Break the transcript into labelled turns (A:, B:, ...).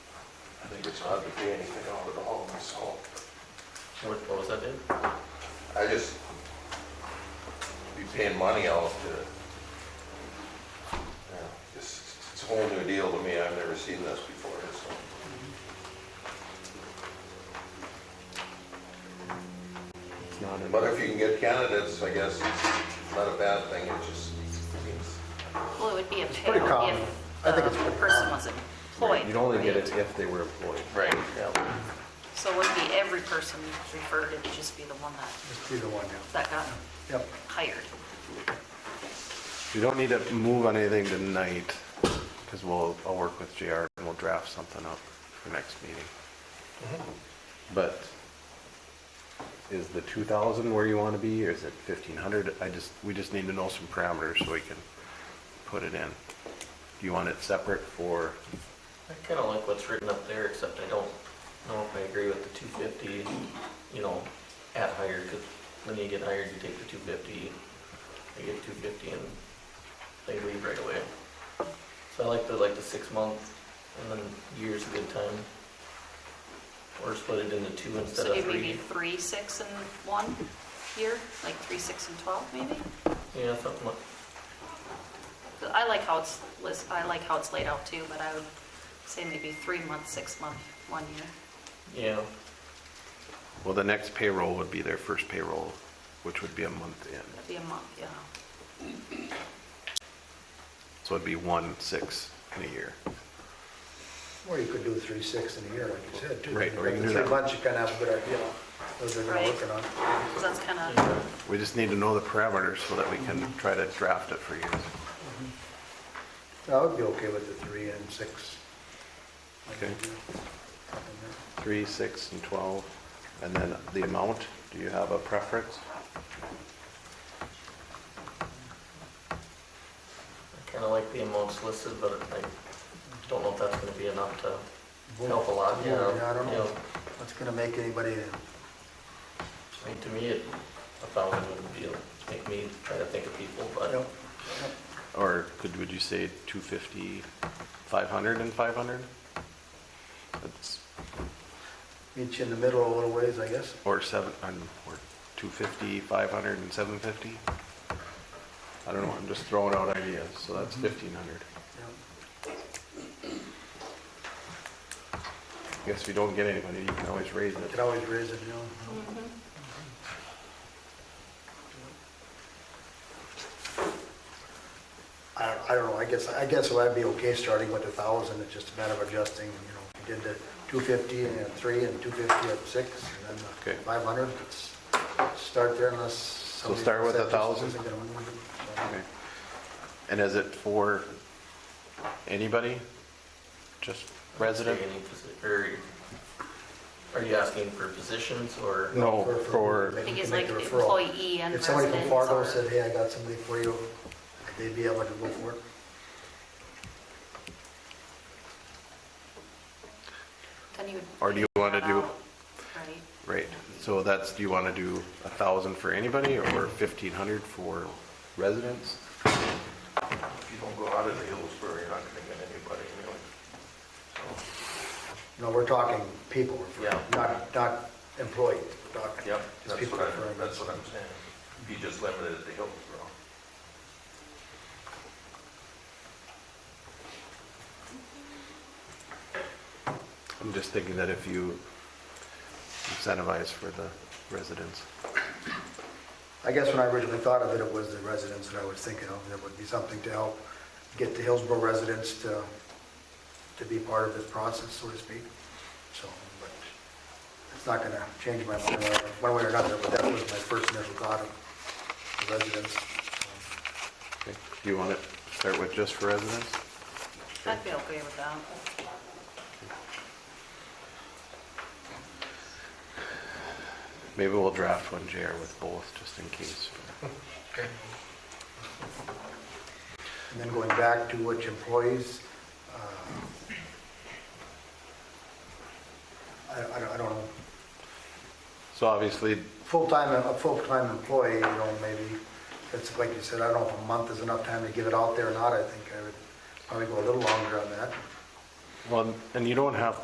A: think it's hard to pay anything out of the home, so
B: What, what was that, Dave?
A: I just be paying money out to, yeah, it's, it's a whole new deal to me, I've never seen this before, so.
C: It's not in-
A: But if you can get candidates, I guess it's not a bad thing, it just seems
D: Well, it would be a
C: pretty
D: pay
C: common.
D: if
C: I think it's
D: the
C: pretty
D: person
C: common.
D: was employed.
C: You'd only get
D: right?
C: it if they were employed.
A: Right.
C: Yeah.
D: So it wouldn't be every person referred, it would just be the one that,
E: Just be the one, yeah.
D: that got
E: Yep.
D: hired.
C: You don't need to move on anything tonight, because we'll, I'll work with JR and we'll draft something up for next meeting. But is the two thousand where you want to be, or is it fifteen hundred? I just, we just need to know some parameters so we can put it in. Do you want it separate for,
B: I kinda like what's written up there, except I don't know if I agree with the two fifty, you know, at hire, cause when you get hired, you take the two fifty, they get two fifty and they leave right away. So I like the, like the six month and then year's a good time. Or split it into two instead
D: So
B: of
D: you maybe
B: three.
D: three, six, and one year, like three, six, and 12 maybe?
B: Yeah, something like,
D: I like how it's, lis- I like how it's laid out too, but I would say maybe three months, six month, one year.
B: yeah,
C: well, the next payroll would be their first payroll, which would be a month in.
D: That'd be a month, yeah.
C: So it'd be one, six in a year.
E: Or you could do three, six in a year, like you said, too.
C: Right, or you can do
E: Three
C: that.
E: months, you kind of have a good idea of what they're gonna
D: Right.
E: working on.
D: Because that's kind of,
B: yeah,
C: We just need to know the parameters so that we can try to draft it for you.
E: I would be okay with the three and six.
C: Okay. Three, six, and 12. And then the amount, do you have a preference?
B: I kinda like the amounts listed, but I don't know if that's gonna be enough to help a
E: Well,
B: lot, yeah.
E: Yeah, I don't know.
B: yeah.
E: What's gonna make anybody,
B: I mean, to me, it- a thousand would be, make me try to think of people, but
E: yep,
C: Or could, would you say 250, 500, and 500? That's-
E: meet you in the middle a little ways, I guess.
C: Or seven, um, or 250, 500, and 750? I don't know, I'm just throwing out ideas, so that's 1,500.
E: Yep.
C: I Guess if you don't get anybody, you can always raise
E: You
C: it.
E: Could always raise it, you know. I don't, I don't know, I guess, I guess I'd be okay starting with a thousand, it's just a matter of adjusting, you know, if you did the two fifty and then three and two fifty and six, and
C: Okay.
E: then five hundred, it's, start there unless. somebody
C: start with
E: said
C: a
E: this
C: thousand?
E: isn't gonna win, so.
C: Okay. And is it for anybody? Just resident?
B: Say any posi- Or, are you asking for positions or?
C: No, Oh, for-
D: I think it's
E: make
D: like
E: the referral.
D: employee and
E: If somebody from
D: residents
E: Fargo
D: or-
E: said, hey, I got somebody for you, could they be able to go for it?
D: then you would.
C: Or do you wanna
D: figure
C: do-
D: that out, Right?
C: Right, so that's, do you want to do a thousand for anybody or fifteen hundred for residents?
A: If you don't go out of the Hillsborough, you're not gonna get anybody, really.
E: No, we're talking people, referring,
B: Yeah.
E: not, not employee, not
A: Yep,
E: just
A: that's
E: people
A: what
E: referring.
A: I'm, that's what I'm saying. Be just limited to Hillsborough.
C: I'm just thinking that if you incentivize for the residents.
E: I guess when I originally thought of it, it was the residents that I was thinking of, that would be something to help get the Hillsborough residents to, to be part of this process, so to speak. So, but it's not gonna change my mind one way or another, but that was my first initial thought of the residents.
C: Okay. Do you want to start with just for residents?
D: I'd be okay with that.
C: Maybe we'll draft one, JR, with both, just in case.
E: And then going back to which employees, uh, I, I don't- I don't know.
C: So obviously,
E: full-time, a full-time employee, you know, maybe, it's like you said, I don't know if a month is enough time to give it out there or not, I think I would probably go a little longer on that.
C: well, and you don't have